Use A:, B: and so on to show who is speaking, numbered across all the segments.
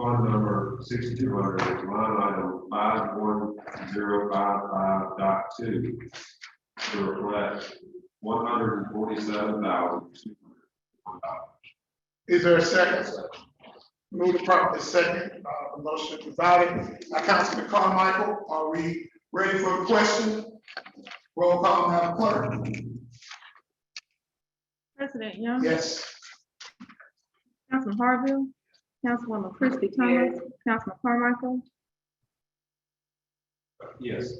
A: Fund number sixty-two hundred, line item five one zero five five dot two. To reflect one hundred and forty-seven thousand two hundred dollars.
B: Is there a second? Move the property second, uh, the motion provided by Councilman Carmichael. Are we ready for a question? Roll call, Madam Clerk.
C: President Young.
B: Yes.
C: Councilman Harville. Councilwoman Christie Thomas. Councilman Carmichael.
A: Yes.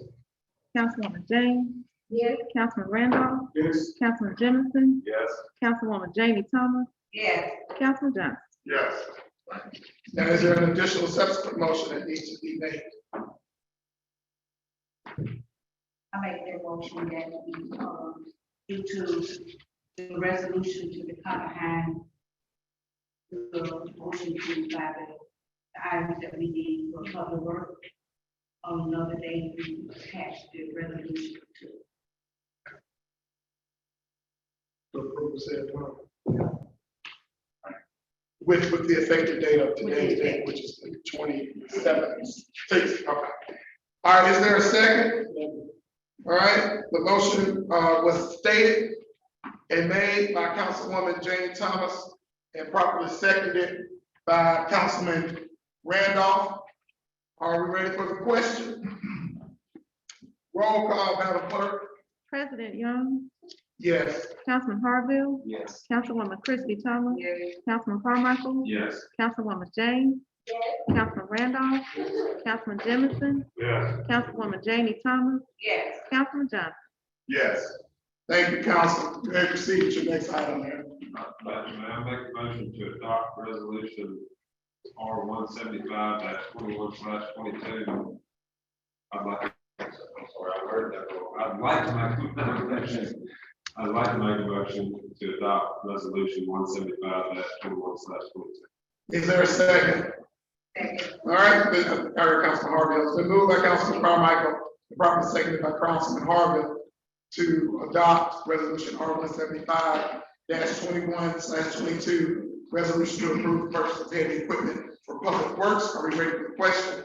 C: Councilwoman Jane.
D: Yes.
C: Councilman Randolph.
B: Yes.
C: Councilman Jimmison.
A: Yes.
C: Councilwoman Jamie Thomas.
D: Yes.
C: Councilman Johnson.
B: Yes. Now, is there an additional subsequent motion that needs to be made?
D: I make that motion that we, um, due to the resolution to the Conahan, the motion to buy the the items that we need for public work. On another day, we attach the resolution to.
B: to approve said plan? With, with the effective date of today's date, which is the twenty-seventh, sixth, okay. All right, is there a second? All right, the motion, uh, was stated and made by Councilwoman Jane Thomas and properly seconded by Councilman Randolph. Are we ready for the question? Roll call, Madam Clerk.
C: President Young.
B: Yes.
C: Councilman Harville.
A: Yes.
C: Councilwoman Christie Thomas.
D: Yes.
C: Councilman Carmichael.
A: Yes.
C: Councilwoman Jane. Councilman Randolph. Councilman Jimmison.
A: Yes.
C: Councilwoman Jamie Thomas.
D: Yes.
C: Councilman Johnson.
B: Yes. Thank you, council. You may proceed with your next item there.
A: But may I make a motion to adopt resolution R one seventy-five twenty-one slash twenty-two? I'd like, I'm sorry, I heard that wrong. I'd like to make a motion. I'd like to make a motion to adopt resolution one seventy-five twenty-one slash twenty-two.
B: Is there a second?
D: Second.
B: All right, been- all right, Councilman Harville, it's been moved by Councilman Carmichael, and properly seconded by Councilman Harville to adopt resolution R one seventy-five twenty-one twenty-two, resolution to approve purchase of heavy equipment for public works. Are we ready for the question?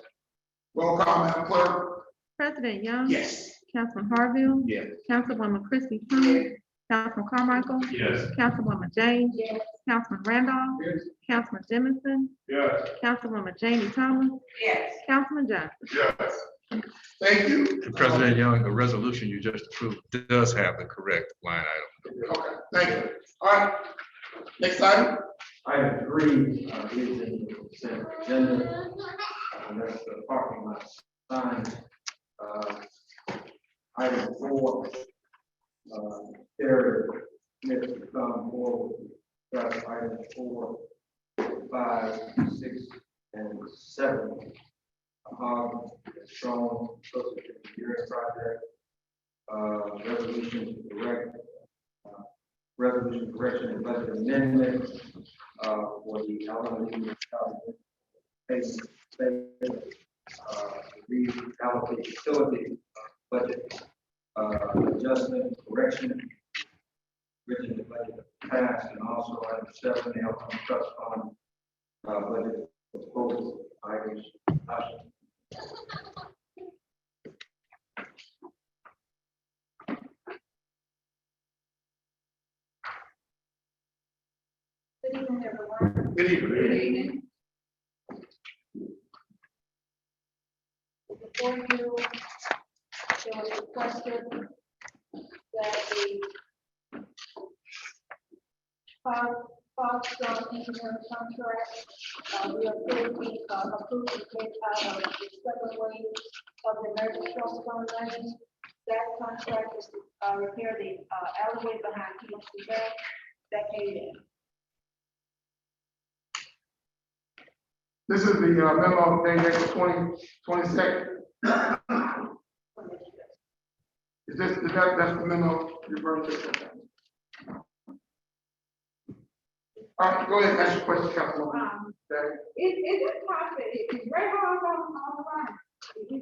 B: Roll call, Madam Clerk.
C: President Young.
B: Yes.
C: Councilman Harville.
A: Yes.
C: Councilwoman Christie Thomas. Councilman Carmichael.
A: Yes.
C: Councilwoman Jane. Councilman Randolph.
B: Yes.
C: Councilman Jimmison.
A: Yes.
C: Councilwoman Jamie Thomas.
D: Yes.
C: Councilman Johnson.
B: Yes. Thank you.
E: And President Young, the resolution you just approved does have the correct line item.
B: Okay, thank you. All right. Next item.
F: Item three uh, is in the consent agenda. And that's the parking lot sign. Uh, Item four, uh, there, Mr. Tom Moore, that's item four, five, six, and seven. Um, it's shown, posted in the year project. Uh, Resolution to direct, uh, resolution correction and budget amendment uh, for the elementary phase, phase, uh, reallocate facility budget, uh, adjustment, correction, written the budget passed, and also item seven, the outcome trust fund, uh, budget proposal, items, option
D: Good evening, everyone.
B: Good evening.
D: evening. Before you, it was requested that the Fox- Foxconn engineering contract, uh, we approved, we approved the take out of the subway of the American Crossbone Lane. That contract is to uh, repair the uh, alleyway behind PNC Bank that came in.
B: This is the uh, memo dated twenty, twenty-second. Is this, is that, that's the memo referring to? All right, go ahead, ask your question, Councilwoman.
G: Um,
B: That-
G: is, is it possible, is is Ray Hall on, on the line? Is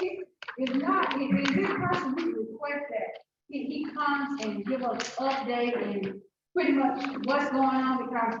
G: it- If not, is, is it possible to request that he, he comes and give us update and pretty much what's going on because